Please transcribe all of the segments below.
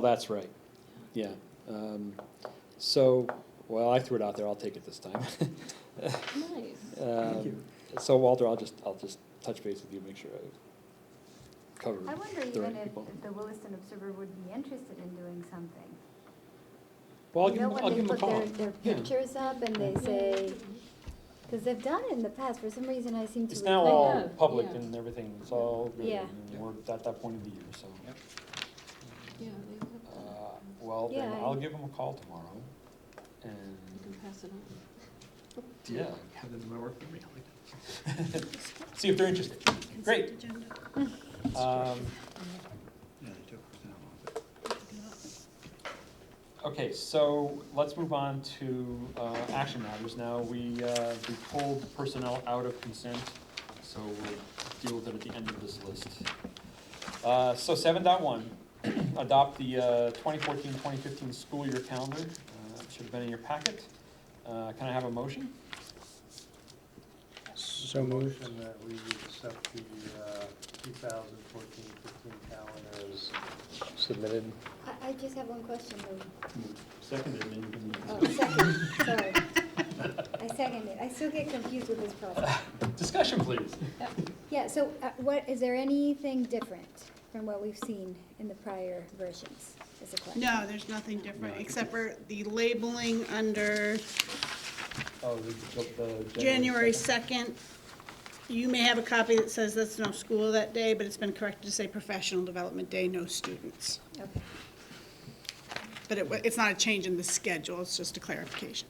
That's right, yeah. Um, So, well, I threw it out there, I'll take it this time. Nice. Um, So Walter, I'll just, I'll just touch base with you, make sure I cover I wonder the even right if, people. if the Williston Observer would be interested in doing something. Well, I'll You give know, him, when I'll they give him a put call. their- Their Yeah. Mm-hmm. pictures up and they say, because they've done it in the past, for some reason I seem to. It's now recall- I all know, public yeah. and everything, it's all, really- Yeah. and we're at that point of the year, so. Yeah, they have Uh, that. Well, then Yeah, I- I'll give him a call tomorrow, You can and, pass it on. Mm-hmm. yeah, Have them in my work memory, I like that. see if they're interested. Great. Um, Yeah, they do. They're not long, but- Okay, so let's move on to uh, action matters now. We, uh, we pulled personnel out of consent, so we'll deal with it at the end of this list. Uh, So seven dot one, adopt the uh, 2014-2015 school year calendar. Uh, it Should have been in your packet. Uh, Can I have a motion? So moved. Motion that we accept the uh, 2014-15 calendar as submitted. I, I just have one question though. Seconded, and you Oh, second, sorry. I second it. I still get confused with this problem. Discussion, please. Yeah, so uh, what, is there anything different from what we've seen in the prior versions is the question? No, there's nothing different, except for the labeling under Oh, the- the- the January 2nd. You may have a copy that says that's no school that day, but it's been corrected to say Professional Development Day, no students. Okay. But it, wa- it's not a change in the schedule, it's just a clarification.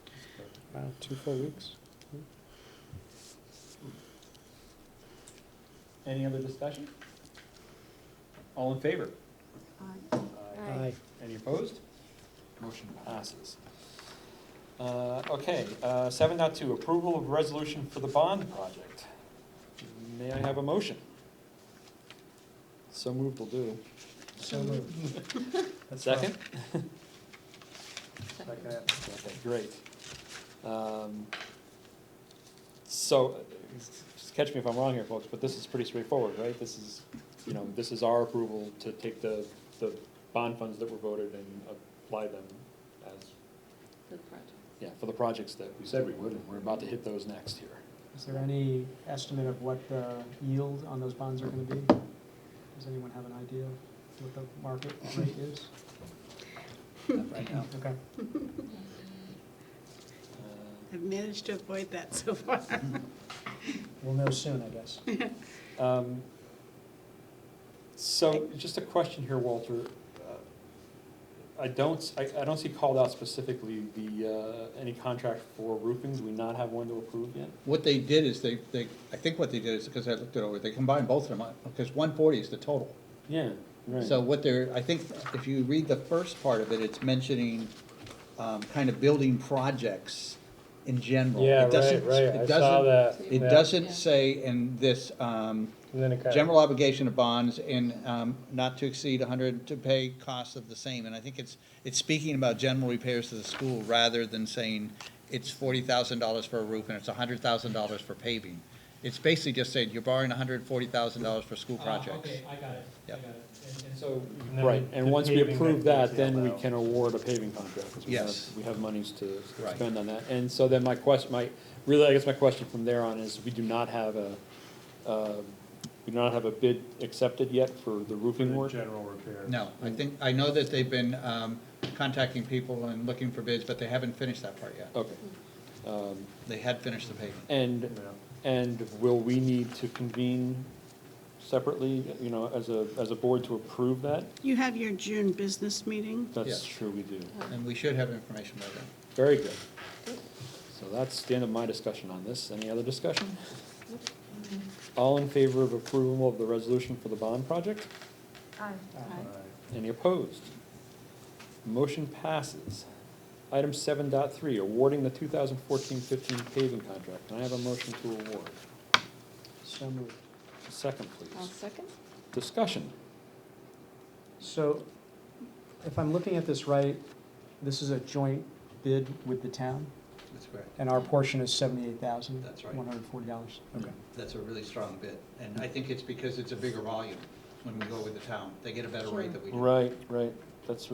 Wow, two full weeks. Any other discussion? All in favor? Aye. Any opposed? Motion passes. Uh, Okay, seven point two. approval of resolution for the bond project. May I have a motion? So moved will do. So moved. That's fine. Second? Second. Okay, great. Um, So, uh, just catch me if I'm wrong here, folks, but this is pretty straightforward, right? This is, you know, this is our approval to take the, the bond funds that were voted and apply them as The project. Yeah, for the projects that we said we would, and we're about to hit those next here. Is there any estimate of what the yield on those bonds are gonna be? Does anyone have an idea what the market rate is? Not right now. Okay. I've managed to avoid that so far. We'll know soon, I guess. Uh, um, So, just a question here, Walter. Uh, I don't, s- I, I don't see called out specifically the, uh, any contract for roofing, do we not have one to approve yet? What they did is they, they, I think what they did is, because I looked it over, they combined both of them, because one forty is the total. Yeah, right. So what they're, I think, if you read the first part of it, it's mentioning, um, kind of building projects in general. Yeah, It right, doesn't- right, it I saw doesn't- that. It yeah. Yeah. doesn't say in this, um, And then it kind of, general obligation of bonds in, um, not to exceed hundred to pay costs of the same, and I think it's, it's speaking about general repairs to the school rather than saying it's forty thousand dollars for a roof and it's hundred thousand dollars for paving. It's basically just saying you're borrowing hundred and forty thousand dollars for Oh, school projects. Oh, I got it, I Yep. got it. And- And So, And then right, and the once we paving approve that that, goes then we out. can award a paving contract. 'cause we have- Yes. We have monies to Right. spend on that. And so then my question, my, really, I guess my question from there on is, we do not have a, uh, we do not have a bid accepted yet for the roofing the work? general repair. No, I think, I know that they've been, um, contacting people and looking for bids, but they haven't finished that part yet. Okay. Um, They had finished the paving. And, Yeah. and will we need to convene separately, you know, as a, as a board to approve that? You have your June business meeting. That's Yes. true, we do. And we should have information by then. Very good. So that's the end of my discussion on this. Any other discussion? All in favor of approval of the resolution for the bond project? Aye. All right. Any opposed? Motion passes. Item seven dot three, awarding the 2014-15 paving contract. Can I have a motion to award? So moved. Second, I'll please. second. Discussion. So if I'm looking at this right, this is a joint bid with the town, That's correct. and our portion is seventy-eight thousand, That's right. one hundred and forty dollars. Okay. That's a really strong bid, and I think it's because it's a bigger volume when we go with the town. They get a better rate than we do. Right, right. That's